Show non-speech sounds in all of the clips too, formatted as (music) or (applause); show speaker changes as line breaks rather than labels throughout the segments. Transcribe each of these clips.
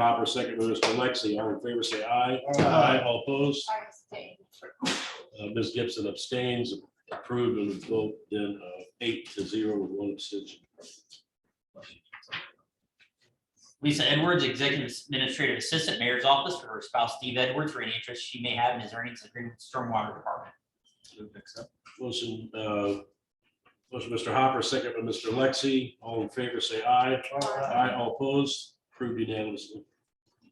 Hopper, second by Mr. Lexi. All in favor, say aye.
Aye.
All opposed?
I abstain.
Uh, Ms. Gibson abstains, approved on the vote, then uh, eight to zero with one abstention.
Lisa Edwards, Executive Administrative Assistant Mayor's Office for her spouse Steve Edwards for any interest she may have in his earnings agreement with Stormwater Department.
Motion, uh, motion, Mr. Hopper, second by Mr. Lexi. All in favor, say aye. Aye. All opposed? Approved unanimously.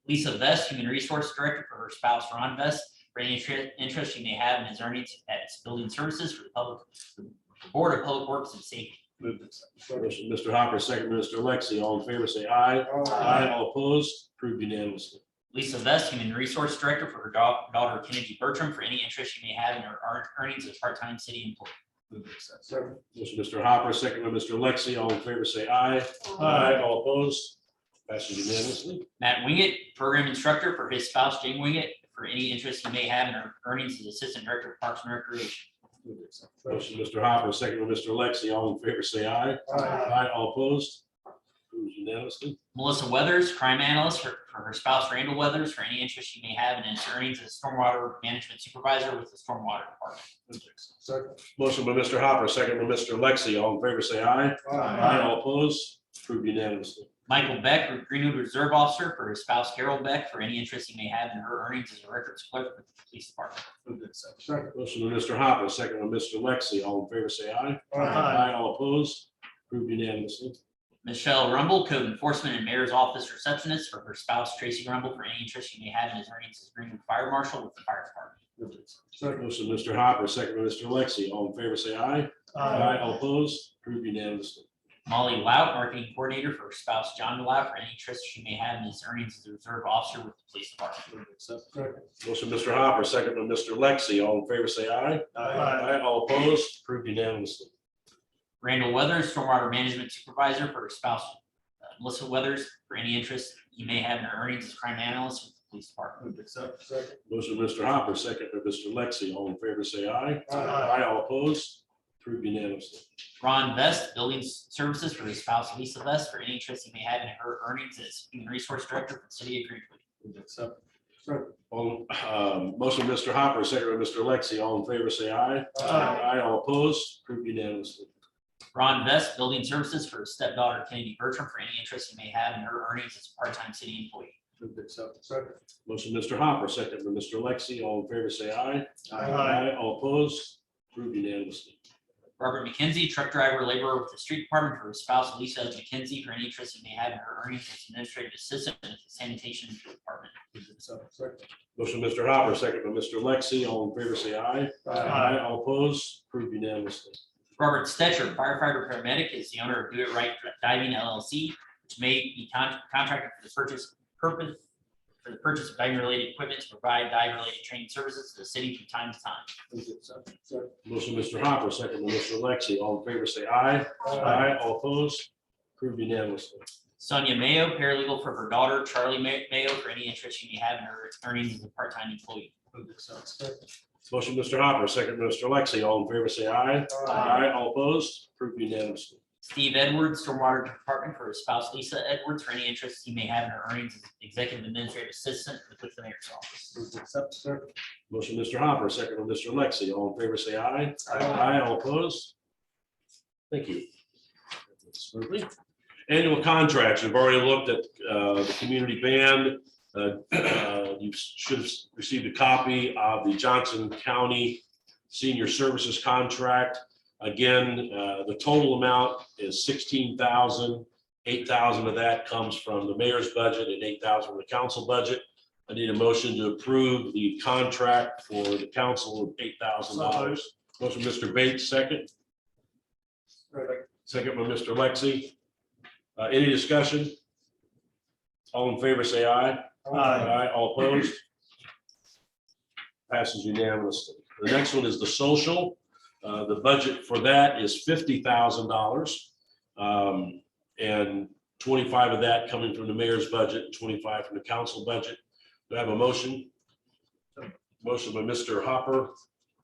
Lisa Vest, Human Resource Director for her spouse Ron Vest for any inter- interest she may have in his earnings at its building services for the public, the Board of Public Works and Safety.
Motion, Mr. Hopper, second by Mr. Lexi. All in favor, say aye. Aye. All opposed? Approved unanimously.
Lisa Vest, Human Resource Director for her dau- daughter Kennedy Bertram for any interest she may have in her ear- earnings as part-time city employee.
Motion, Mr. Hopper, second by Mr. Lexi. All in favor, say aye. Aye. All opposed? Passes unanimously.
Matt Winget, Program Instructor for his spouse Jane Winget for any interest he may have in her earnings as Assistant Director of Parks and Recreation.
Motion, Mr. Hopper, second by Mr. Lexi. All in favor, say aye. Aye. All opposed? Approved unanimously.
Melissa Weathers, crime analyst for, for her spouse Randall Weathers, for any interest she may have in his earnings as stormwater management supervisor with the stormwater department.
Motion by Mr. Hopper, second by Mr. Lexi. All in favor, say aye. Aye. All opposed? Approved unanimously.
Michael Beck, Greenwood Reserve Officer, for his spouse Carol Beck, for any interest he may have in her earnings as a records clerk with the police department.
Motion by Mr. Hopper, second by Mr. Lexi. All in favor, say aye. All opposed? Approved unanimously.
Michelle Rumble, Code Enforcement and Mayor's Office Receptionist, for her spouse Tracy Rumble, for any interest she may have in his earnings as Greenwood Fire Marshal with the fire department.
Motion by Mr. Hopper, second by Mr. Lexi. All in favor, say aye. All opposed? Approved unanimously.
Molly Lout, Marketing Coordinator, for her spouse John Lout, for any interest she may have in his earnings as a reserve officer with the police department.
Motion by Mr. Hopper, second by Mr. Lexi. All in favor, say aye. All opposed? Approved unanimously.
Randall Weathers, stormwater management supervisor for her spouse, uh, Melissa Weathers, for any interest you may have in her earnings as crime analyst with the police department.
Motion by Mr. Hopper, second by Mr. Lexi. All in favor, say aye.
Aye.
All opposed? Approved unanimously.
Ron Vest, building services for his spouse Lisa Vest, for any interest you may have in her earnings as human resource director for the city of Greenwood.
All, um, motion by Mr. Hopper, second by Mr. Lexi, all in favor, say aye. All opposed, approved unanimously.
Ron Vest, building services for his stepdaughter Kennedy Bertram, for any interest you may have in her earnings as a part-time city employee.
Motion by Mr. Hopper, second by Mr. Lexi, all in favor, say aye. All opposed, approved unanimously.
Robert McKenzie, truck driver laborer with the street department for his spouse Lisa McKenzie, for any interest you may have in her earnings as administrative assistant with the sanitation department.
Motion by Mr. Hopper, second by Mr. Lexi, all in favor, say aye. All opposed, approved unanimously.
Robert Stetcher, firefighter paramedic, is the owner of Do It Right Diving LLC, which may be con- contracted for the purchase purpose for the purchase of diving related equipment to provide diving related training services to the city from time to time.
Motion by Mr. Hopper, second by Mr. Lexi, all in favor, say aye. All opposed, approved unanimously.
Sonia Mayo, paralegal for her daughter Charlie May- Mayo, for any interest she may have in her earnings as a part-time employee.
Motion by Mr. Hopper, second by Mr. Lexi, all in favor, say aye. All opposed, approved unanimously.
Steve Edwards, stormwater department for his spouse Lisa Edwards, for any interest he may have in her earnings as executive administrative assistant with the mayor's office.
Motion, Mr. Hopper, second by Mr. Lexi. All in favor, say aye.
Aye.
All opposed? Thank you. Smoothly. Annual contracts, we've already looked at uh, the community band. Uh, (clears throat) uh, You should have received a copy of the Johnson County Senior Services Contract. Again, uh, the total amount is sixteen thousand. Eight thousand of that comes from the mayor's budget and eight thousand from the council budget. I need a motion to approve the contract for the council of eight thousand dollars. Motion, Mr. Bates, second, second by Mr. Lexi. Uh, any discussion? All in favor, say aye. Aye. All opposed? Passes unanimously. The next one is the social. Uh, the budget for that is fifty thousand dollars. Um, and twenty-five of that coming from the mayor's budget, twenty-five from the council budget. Do I have a motion? Motion by Mr. Hopper,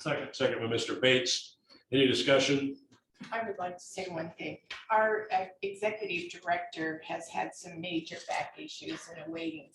second by Mr. Bates. Any discussion?
I would like to say one thing. Our uh, executive director has had some major back issues and awaiting